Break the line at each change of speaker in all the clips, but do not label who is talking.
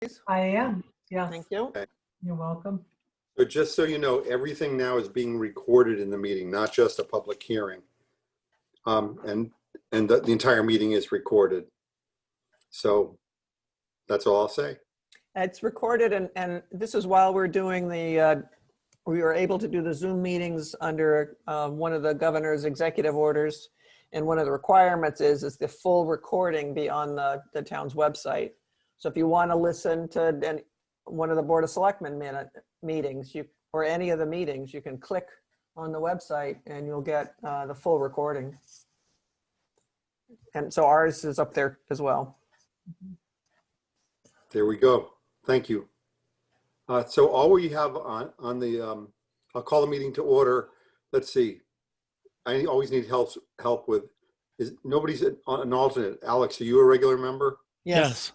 please?
I am, yes.
Thank you.
You're welcome.
So just so you know, everything now is being recorded in the meeting, not just a public hearing. Um, and, and the, the entire meeting is recorded. So that's all I'll say.
It's recorded and, and this is while we're doing the, uh, we were able to do the Zoom meetings under uh, one of the governor's executive orders. And one of the requirements is, is the full recording be on the, the town's website. So if you want to listen to an- one of the Board of Selectmen minute, meetings, you, or any of the meetings, you can click on the website and you'll get uh, the full recording. And so ours is up there as well.
There we go. Thank you. Uh, so all we have on, on the, um, I'll call the meeting to order. Let's see. I always need help, help with, is, nobody's an an alternate. Alex, are you a regular member?
Yes.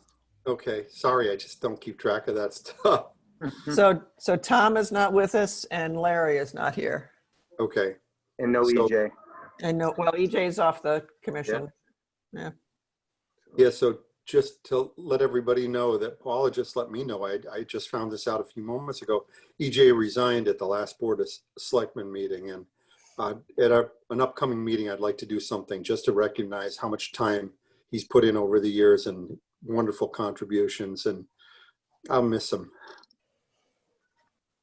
Okay, sorry, I just don't keep track of that stuff. Hmm.
So, so Tom is not with us and Larry is not here.
Okay,
And no E
So-
EJ.
And no, well, EJ's off the commission.
yeah, so just to let everybody know that Paula just let me know, I, I just found this out a few moments ago. EJ resigned at the last Board of Selectmen meeting and uh, at a- an upcoming meeting, I'd like to do something just to recognize how much time he's put in over the years and wonderful contributions and I'll miss him.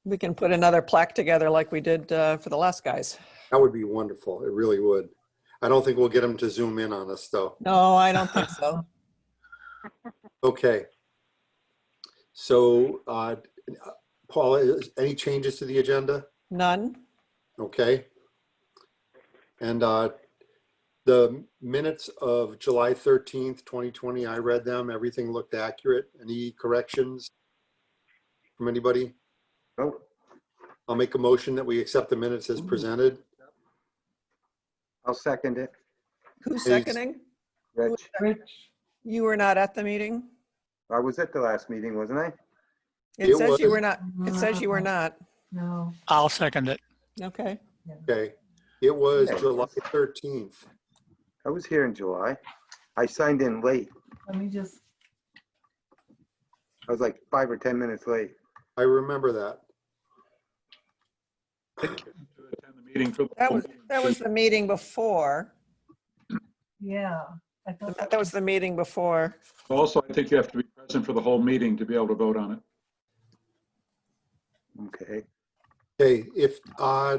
We can put another plaque together like we did uh, for the last guys.
That would be wonderful, it really would. I don't think we'll get him to zoom in on us though.
No, I don't think so.
Okay. So, uh, Paula, is- any changes to the agenda?
None.
Okay. And uh, the minutes of July 13th, 2020, I read them. Everything looked accurate. Any corrections from anybody?
Nope.
I'll make a motion that we accept the minutes as presented.
I'll second it.
Who's seconding?
Rich,
Rich,
You were not at the meeting?
I was at the last meeting, wasn't I?
It
It
says you
was.
were not, it says you were not.
no.
I'll second it.
Okay.
Okay. It was
Yeah.
July 13th.
I was here in July. I signed in late.
Let me just,
I was like five or 10 minutes late.
I remember that.
to attend the meeting for the
That
whole
was, that was the meeting before.
yeah. I thought
That was the meeting before.
Also, I think you have to be present for the whole meeting to be able to vote on it.
Okay.
Okay, if, uh,
I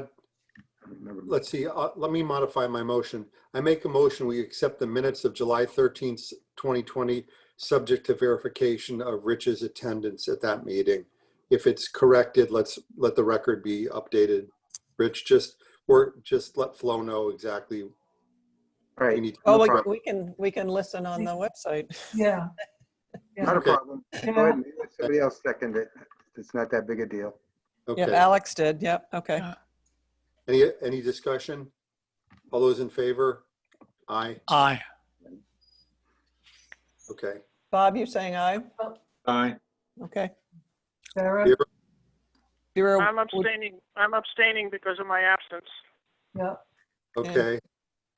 remember.
let's see, uh, let me modify my motion. I make a motion, we accept the minutes of July 13th, 2020, subject to verification of Rich's attendance at that meeting. If it's corrected, let's, let the record be updated. Rich, just, or just let Flo know exactly. we
All right,
need to-
Oh, we- we can, we can listen on the website.
Yeah. Yeah.
not a
Okay.
problem. Go
Yeah.
ahead. Let Somebody else second it. It's not that big a deal.
Oh, Yeah,
Okay,
Alex did. Yep. Okay.
any, any discussion? All those in favor? Aye,
Aye.
okay.
Bob, you saying aye?
Aye.
Okay.
Sarah,
Yeah.
Zero.
I'm abstaining, I'm abstaining because of my absence.
yeah.
Okay,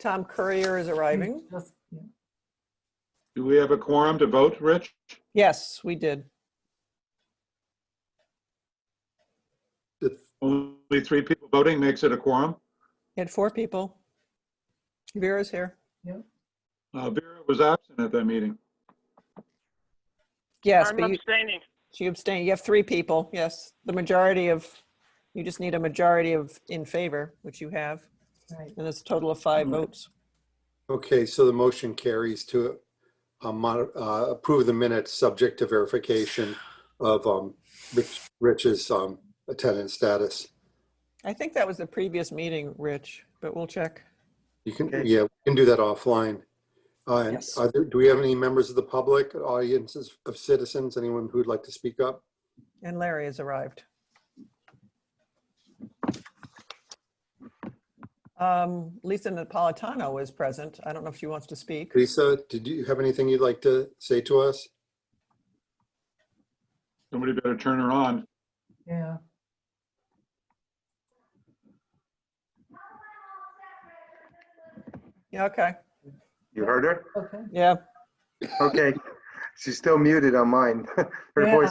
Tom Courier is arriving.
just- yeah.
Do we have a quorum to vote, Rich?
Yes, we did.
The-
Only three people voting makes it a quorum.
We had four people. Vera's here.
Uh, Vera was absent at that meeting.
Yes,
I'm
but you,
abstaining.
she abstained. You have three people. Yes, the majority of, you just need a majority of in favor, which you have,
Right.
and it's a total of five
Mm.
votes.
Okay, so the motion carries to uh, mod- uh, approve the minutes, subject to verification of um, Rich- Rich's um, attendance status.
I think that was the previous meeting, Rich, but we'll check.
You can,
Okay.
yeah, we can do that offline. Uh, and
Yes.
are there- Do we have any members of the public, audiences of citizens, anyone who'd like to speak up?
And Larry has arrived. Um, Lisa Napolitano is present. I don't know if she wants to speak.
Lisa, did you have anything you'd like to say to us?
Somebody better turn her on.
Yeah.
Yeah, okay.
You heard her?
Okay.
Yeah,
Okay.
She's still muted on mine. Her
Yeah.
voice